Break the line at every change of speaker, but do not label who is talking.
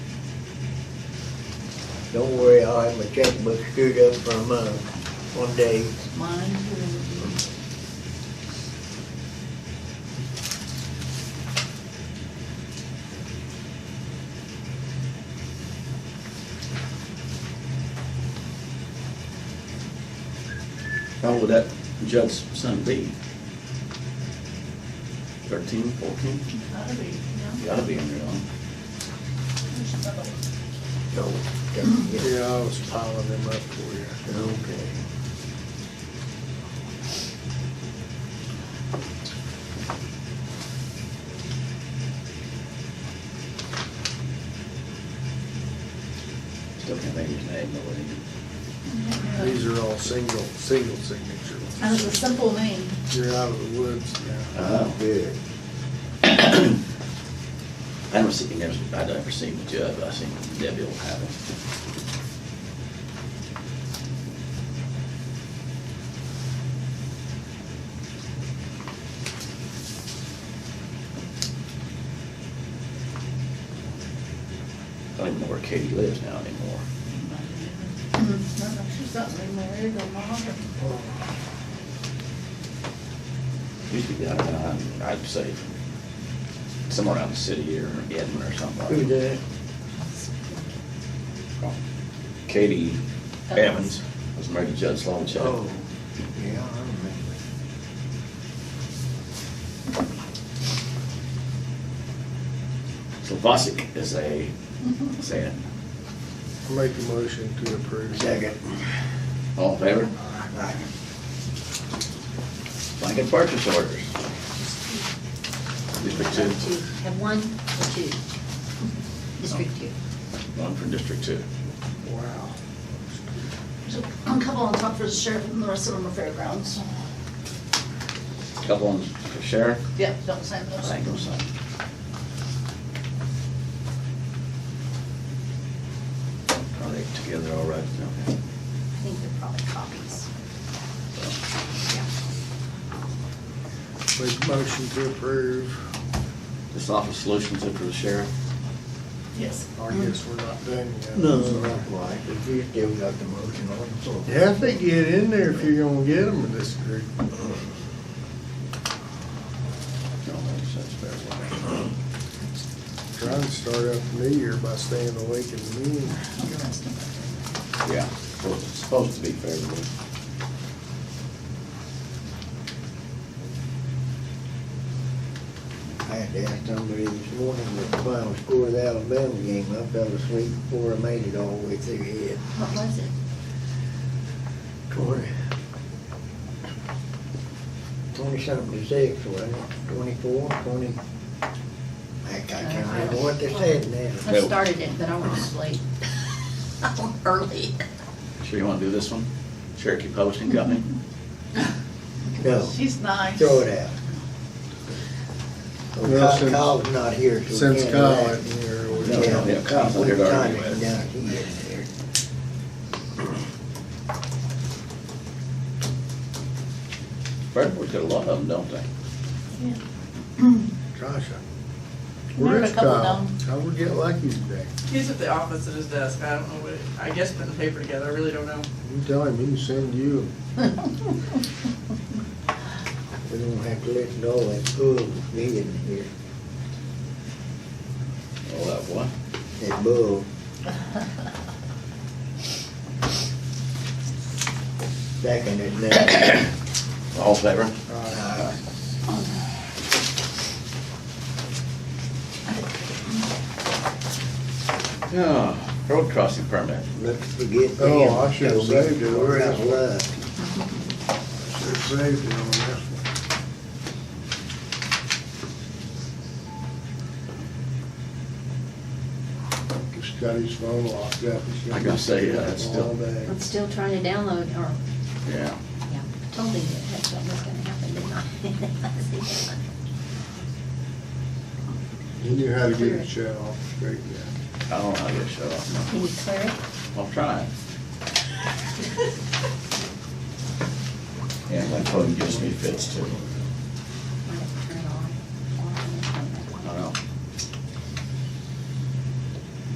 Don't worry, I'll have my checkbook screwed up for a month, one day.
Mine will be.
How old would that judge's son be? Thirteen, fourteen?
Gotta be, yeah.
Gotta be in there, huh?
There's another one.
No, don't get-
Yeah, I was piling them up for you.
okay.
Still can't think of his name, though, would he?
These are all single, single signature
And it's a
ones.
simple name.
You're out of the woods now.
Uh,
Good.
I don't see, never, I never seen the judge, but I seen Debbie will have it. I don't even know where Katie lives now anymore.
Mhm. She's not remarried or mom.
Used to be, I don't know, I'd say somewhere around the city or Edmond or
Who's
something.
that?
Katie Evans was married to Judge Longchamp.
Oh, yeah, I remember.
Slavosic is a, is a,
Make a motion to approve.
Second.
all in favor? Blanket purchase orders. District two,
Two, have one or two? District two.
one for District two.
Wow.
There's a couple on top for the sheriff and the rest of them are fairgrounds.
Couple ones for sheriff,
Yep, don't send
I
those.
think those are- Are they together all right? Okay.
I think they're probably copies.
Make a motion to approve.
This office solutions it for the sheriff?
Yes.
Oh,
I guess we're not done yet.
Not quite, but you still got the motion on, so.
You have to get in there if you're gonna get them in this group.
No, that's, that's fair.
Trying to start up the new year by staying awake and meeting.
Yeah, well, it's supposed to be favorable.
I had to ask somebody this morning what the final score of the Alabama game. I fell asleep before I made it all the way through here.
What was it?
Twenty. Twenty-something to six, wasn't it? Twenty-four, twenty? Heck, I can't remember what they said now.
I started it, but I went to sleep. I went early.
Sure you wanna do this one? Cherokee Posting Company?
No,
She's nice.
throw it out. Oh,
Well,
Kyle-
since-
Kyle's not here, so we
Since
can't
Kyle
laugh.
isn't here,
No,
we
no,
can't.
yeah, Kyle's not here to argue
We've
with.
done it. He isn't here.
Fairborn's got a lot of them, don't they?
Gosh, I-
There are a
where's
couple
Kyle?
down.
How we get lucky today?
He's at the office at his desk. I don't know what, I guess putting the paper together. I really don't know.
You tell him, he can send you.
We don't have to listen to all that bull being here.
All that what?
That bull. Second is now.
All in favor?
Uh,
Yeah, road crossing permit.
Let's forget them.
Oh, I should've
Toby.
saved it.
We're out of luck.
Should saved it on that one. Just got his phone locked up. He's
I gotta say, yeah, it's still-
All day.
I'm still trying to download, or,
Yeah.
yeah, totally, that's what was gonna happen, didn't I? See?
He knew how to get it shut off straight down.
I don't know how to get shut off.
Can you clear it?
I'll try. Yeah, my phone gives me fits too.